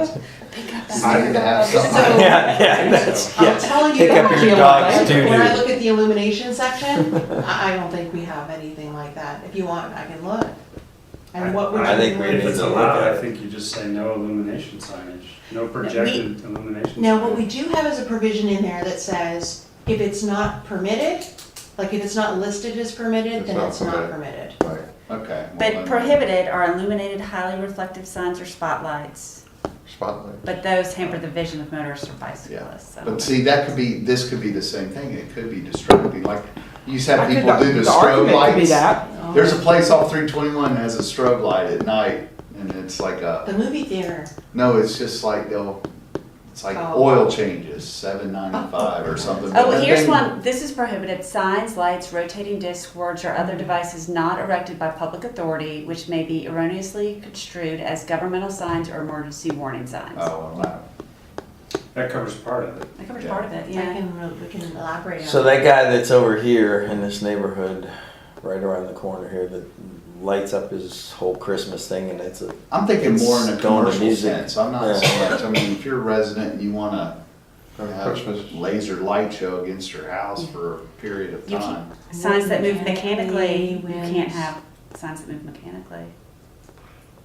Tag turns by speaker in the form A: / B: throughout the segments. A: Pick up
B: I need to have
A: So-
B: something.
C: Yeah, yeah, that's,
A: I'm
C: yeah.
A: telling you,
C: Pick up your dog's
A: when I
C: doo-doo.
A: look at the illumination section, I, I don't think we have anything like that. If you want, I can look. And what would you?
C: I think we
A: want?
C: need
D: If it's
C: to look
D: allowed,
C: at
D: I
C: it.
D: think you just say no illumination signage, no projected illumination.
A: Now, what
D: signage.
A: we do have is a provision in there that says, if it's not permitted, like if it's not listed as permitted,
B: It's
A: then
B: not
A: it's not permitted.
B: Right, okay. well,
E: But
B: then-
E: prohibited are illuminated highly reflective signs or spotlights,
B: Spotlight.
E: but those hamper the vision of motorists or bicyclists. so.
B: But see, that could be, this could be the same thing, it could be distracting, like, you used to
F: I
B: have
F: could-
B: people do the strobe
F: argument could be
B: lights.
F: that.
B: There's a place off three twenty-one that has a strobe light at night, and it's like
A: The
B: a,
A: movie theater,
B: no, it's just like they'll, it's like
A: Oh.
B: oil changes, seven ninety-five or something. but
E: Oh, well,
B: that
E: here's
B: thing-
E: one, this is prohibited, signs, lights, rotating discs, words, or other devices not erected by public authority, which may be erroneously construed as governmental signs or emergency warning signs.
B: Oh, wow.
D: That covers part of it.
E: That covers
B: yeah.
E: part of it,
A: I
E: yeah.
A: can, re- we can elaborate on.
C: So that guy that's over here in this neighborhood, right around the corner here, that lights up his whole Christmas thing and it's a,
B: I'm thinking more in a
C: It's going to
B: commercial
C: music.
B: sense, I'm not so much, I mean, if you're a resident and you wanna have a
G: Christmas.
B: laser light show against your house for a period of
E: You
B: time.
E: Signs that move
A: Mechanically,
E: mechanically, you can't
A: winds.
E: have signs that move mechanically.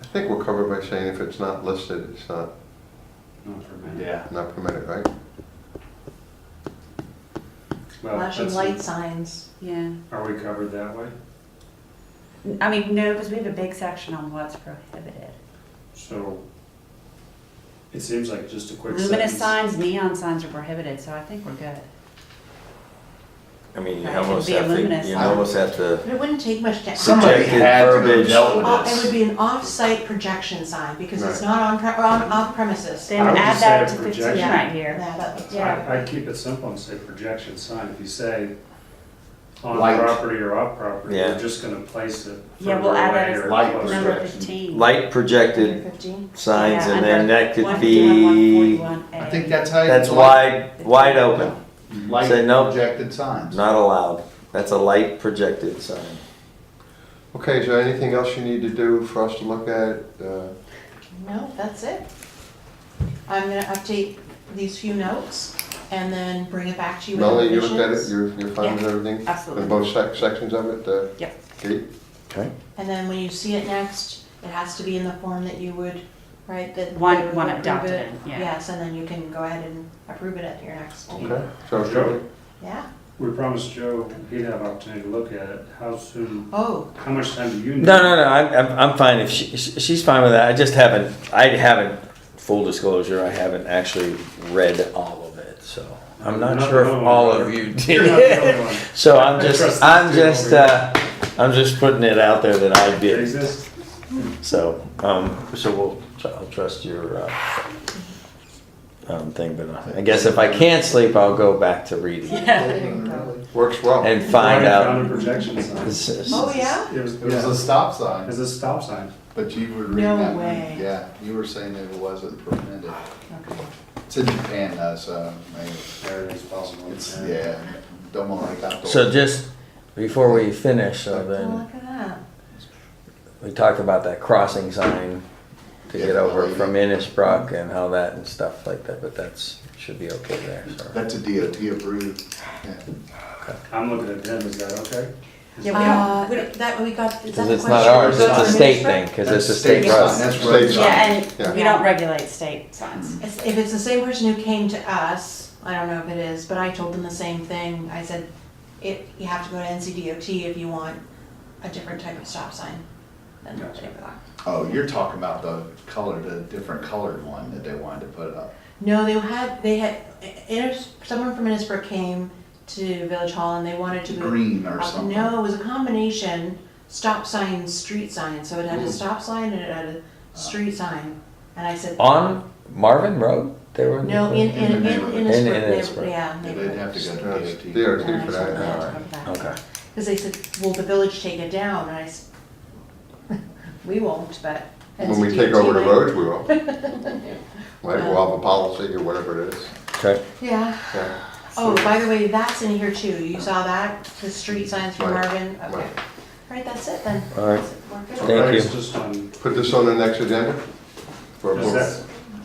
G: I think we're covered by saying if it's not listed, it's not,
D: Not for me.
B: Yeah.
G: not permitted, right?
D: Well,
A: Flashing
C: Oh,
D: that's-
A: light signs.
E: Yeah.
D: Are we covered that way?
E: I mean, no, because we have a big section on what's prohibited.
D: So it seems like just a quick
E: Luminous
D: sentence.
E: signs, neon signs are prohibited, so I think we're good.
C: I mean, you
E: Right, it'd
C: almost
E: be
C: have to,
E: luminous.
C: you almost have to.
A: But it wouldn't take much to.
B: Somebody
C: Projected
B: had to have
C: verbiage.
B: dealt with
A: Uh,
B: this.
A: It would be an off-site projection sign because it's
G: Right.
A: not on, pre- or on, off premises.
E: Then
D: would
E: add
D: just
E: that
D: say
E: to fifteen
D: projection.
E: right here.
A: Yeah, but-
E: Yeah.
D: I, I keep it simple and say projection sign. If you say on
B: Light.
D: property or off property,
C: Yeah.
D: we're just gonna place it
E: Yeah,
D: further
E: we'll add that
D: away
E: as
D: or
B: light
D: closer.
E: Number
B: Projection.
E: fifteen.
C: Light projected
A: Fifteen?
C: signs
E: Yeah,
C: and then
E: under
C: that could
E: 151,
C: be,
E: 141A.
B: I think that's how. you-
C: that's wide, wide open,
B: Like
C: Say no.
B: projected signs.
C: not allowed. That's a light projected sign.
G: Okay, is there anything else you need to do for us to look at? Uh,
A: No, that's it. I'm gonna update these few notes and then bring it back to you with the
G: Melanie, you looked at it,
A: revisions.
G: you're, you're fine with everything?
E: Absolutely.
G: In both sec- sections of it, uh, the
E: Yep.
G: gate?
C: Okay.
A: And then when you see it next, it has to be in the form that you would, right, that.
E: One-
A: that we
E: one
A: would approve
E: adopted
A: it.
E: in, yeah.
A: Yes, and then you can go ahead and approve it at your next meeting.
G: Okay, sounds
D: Sure.
G: good.
A: Yeah,
D: We promised Joe he'd have opportunity to look at it. How soon,
A: oh,
D: how much time do you need?
C: No, no, no. I'm, I'm, I'm fine. If she, she- she's fine with that, I just haven't. I haven't. Full disclosure, I haven't actually read all of it, so I'm not
D: You're not
C: sure
D: the
C: if
D: only
C: all
D: one.
C: of you
D: You're not the
C: did.
D: only one.
C: so I'm just,
D: Trust
C: I'm
D: this dude
C: just, uh,
D: over
C: I'm just putting it out there that I
D: here.
C: did.
D: Jesus.
C: So, um, so we'll, tr- I'll trust your uh, um, thing, but I guess if I can't sleep, I'll go back to reading
G: Works well.
C: and find
D: Right,
C: out.
D: Found a projection sign.
C: This is-
A: oh, yeah?
D: It was,
B: It was a stop sign,
D: a stop sign.
B: but you were
A: No
B: reading that. one.
A: way.
B: Yeah, you were saying that it wasn't permitted.
A: Okay.
B: It's in Japan, though, so maybe
D: There it is, possible.
B: it's, yeah, don't want to like that.
C: So just before we finish, so
A: Well,
C: then.
A: look at that.
C: We talked about that crossing sign to get over from Innisbrook and how that and stuff like that, but that's, should be okay there, so.
B: That's a DOT approved. Yeah.
D: I'm looking at him, is that okay?
E: Yeah,
A: Uh,
E: we don't, we don't,
A: that, we got, is that
C: Cause
A: the
C: it's not
A: question?
C: ours, it's
A: Go
C: a
A: to
C: state
A: administrator?
C: thing, cause it's a
B: That's
C: state
B: sign,
C: road.
B: That's road
G: State
B: sign.
E: yeah,
G: Yeah.
E: and we don't regulate state signs.
A: It's- If it's the same person who came to us, I don't know if it is, but I told them the same thing. I said, it, you have to go to NCDOT if you want a different type of stop sign than what they got.
B: Oh, you're talking about the color, the different colored one that they wanted to put up.
A: No, they had, they had, Innis- someone from Innisbrook came to Village Hall and they wanted to.
B: Green or
A: Uh,
B: something.
A: No, it was a combination, stop sign, street sign. So it had a
B: Ooh. Uh.
A: stop sign and it had a street sign. And I said,
C: On Marvin Road, they were.
A: no, in,
B: the
A: in, in
B: neighborhood.
C: In
A: Innisbrook,
C: Innisbrook.
A: they- yeah.
B: Yeah,
A: neighborhood.
B: They'd have to go
G: Yeah,
B: to
G: it's
B: DOT.
G: DOT
A: And I told them
G: for that.
A: I had to
C: Alright,
A: come back.
C: Okay,
A: Because they said, will the village take it down? And I said, we won't, but.
G: When we take over the roads, we will. Right,
A: Well-
G: we'll have a policy or whatever it is.
C: okay.
A: Yeah.
G: Yeah.
A: Oh, by the way, that's in here too. You saw that? The street signs from
G: Right,
A: Marvin? Okay.
G: right.
A: Right, that's it then.
C: All right.
A: We're good.
C: Thank
D: Or it's
C: you.
D: just on-
G: Put this on the next agenda for a
D: Is
G: vote.
D: that,